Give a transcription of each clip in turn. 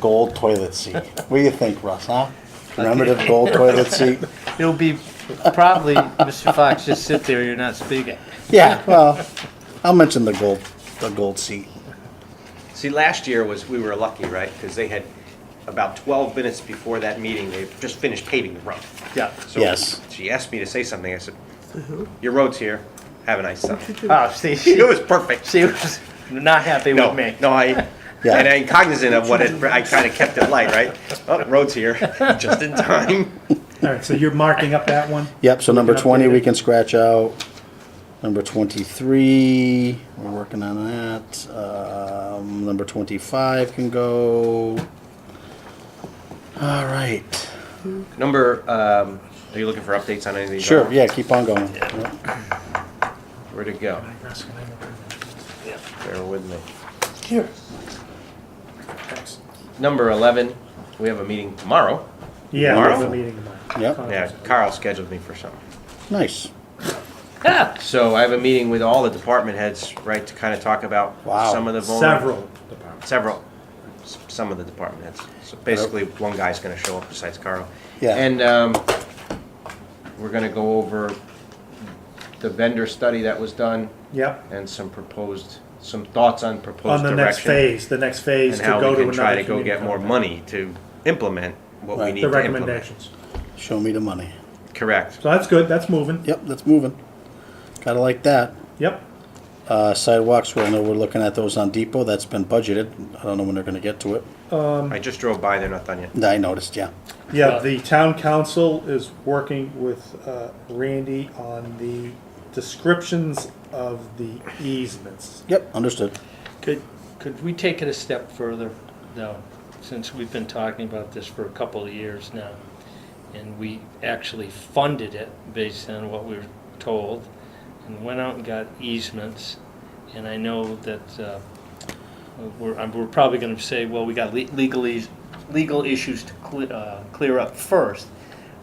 Gold toilet seat. What do you think, Russ, huh? Remember the gold toilet seat? It'll be probably, Mr. Fox, just sit there, you're not speaking. Yeah, well, I'll mention the gold, the gold seat. See, last year was, we were lucky, right? Because they had, about 12 minutes before that meeting, they just finished paving the road. Yeah. So Yes. She asked me to say something. I said, Uh-huh. your road's here. Have a nice summer. Oh, see, she It was, was perfect. she was not happy No, with me. no, I, Yeah. and I'm cognizant of what it, I kind of kept it light, right? Oh, road's here, just in time. All right, so you're marking up that one? Yep, so number can twenty, update we it. can scratch out. Number twenty-three, we're working on that. Um, number twenty-five can go. All right, Number, um, are you looking for updates on anything? sure, yeah, keep on going. Yep. Where'd it go? Bear with me. Here. Number 11, we have a meeting tomorrow. Yeah, we have Tomorrow? a meeting tomorrow. Yep, Yeah, Carl scheduled me for something. nice. So I have a meeting with all the department heads, right, to kind of talk about Wow. some of the vulner- Several departments. several, s- some of the department heads. So basically, one guy's going to show up besides Carl. Yeah. And um, we're going to go over the vendor study that was done Yep, and some proposed, some thoughts on proposed on the direction. next phase, the next phase And to how we go to can another try to go community get more compact. money to implement what we Right. need to The implement. recommendations. Show me the money. Correct. So that's good, that's moving. Yep, that's moving. Gotta like that. Yep, Uh, sidewalks, well, I know we're looking at those on Depot, that's been budgeted, I don't know when they're gonna get to it. I just drove by, they're not done yet. I noticed, yeah. yeah, the town council is working with uh, Randy on the descriptions of the easements. Yep, understood. Could, could we take it a step further, though, since we've been talking about this for a couple of years now? And we actually funded it based on what we were told, and went out and got easements. And I know that, uh, we're, I'm- we're probably gonna say, well, we got le- legal, eas- legal issues to cle- uh, clear up first.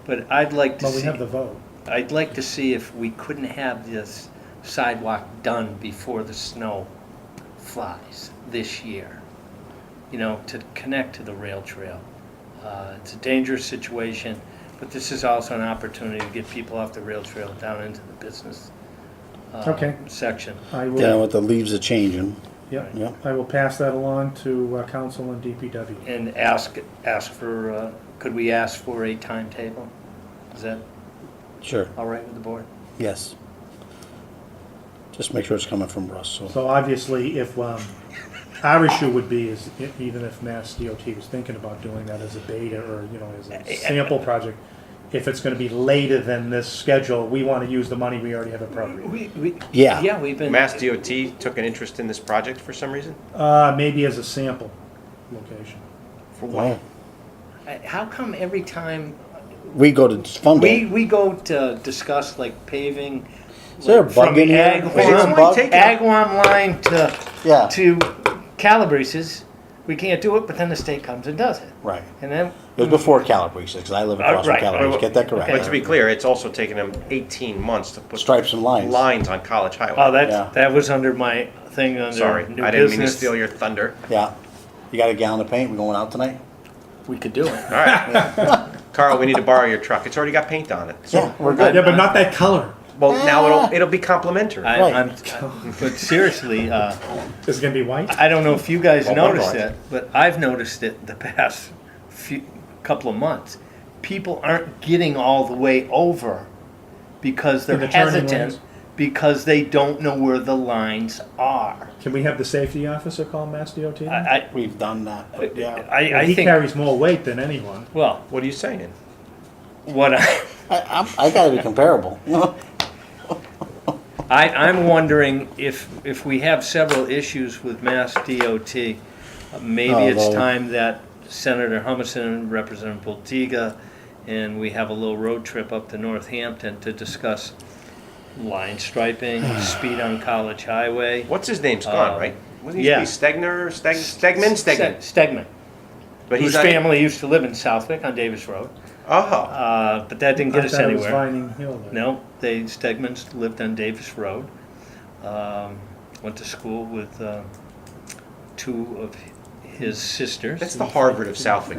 But I'd like to But we see, have the vote. I'd like to see if we couldn't have this sidewalk done before the snow flies this year, you know, to connect to the rail trail. Uh, It's a dangerous situation, but this is also an opportunity to get people off the rail trail down into the business uh, Okay. section. I Yeah, will, with the leaves are changing, yep, yep. I will pass that along to uh, council and DPW. And ask, ask for, uh, could we ask for a timetable? Is that Sure, all right with the board? yes. Just make sure it's coming from Russ, so, So obviously, if, um, our issue would be is e- even if Mass DOT was thinking about doing that as a beta or, you know, as a sample project, if it's gonna be later than this schedule, we wanna use the money we already have appropriated. We, we. Yeah. Yeah, we've been. Mass DOT took an interest in this project for some reason? Uh, maybe as a sample location. For wow. what? Uh, How come every time We go to fund we, it. we go to discuss like paving Is there a like, bug from in here? Agawam, Is there a only bug? taken- Agawam line to Yeah. to Calabrese's, we can't do it, but then the state comes and does it, Right. and then It was before Calabrese, because I live across from right. Calabrese, get that But to correct. be clear, it's also taken them 18 months to put Stripes and lines. lines on College Highway. oh that Yeah. that was under my thing under Sorry, new I didn't mean to business. steal your thunder. Yeah. You got a gallon of paint, we going out tonight? We could do it. All right. Carl, we need to borrow your truck. It's already got paint on it. So, Yeah, Ah. we're Yeah, good. but not that color. well, now it'll it'll be complimentary. I, Right. I'm, but seriously, uh, Is it gonna be white? I don't know if you guys Well, one noticed might. it, but I've noticed it the past few, couple of months. People aren't getting all the way over because they're In the turning hesitant lanes. because they don't know where the lines are. Can we have the safety officer call Mass DOT? I, I, We've done that, yeah. I, I He think. carries more weight than anyone. well, what are you saying? what I, I, I'm, I gotta be comparable. I I'm wondering if if we have several issues with Mass DOT, uh, maybe Oh, it's well- time that Senator Humison, Representative Boltiga, and we have a little road trip up to Northampton to discuss line striping, speed on College Highway. What's his name's gone, Um, right? Wasn't he yeah. used to be Stegner, Steg, Stegman, Stegman. Stegman, But whose he's not. family used to live in Southwick on Davis Road, Oh, uh, but that didn't I get us thought it was anywhere. Vining Hill. though. No, they, Stegmans lived on Davis Road. Um, Went to school with uh, two of his sister's. That's the Harvard of Southwick.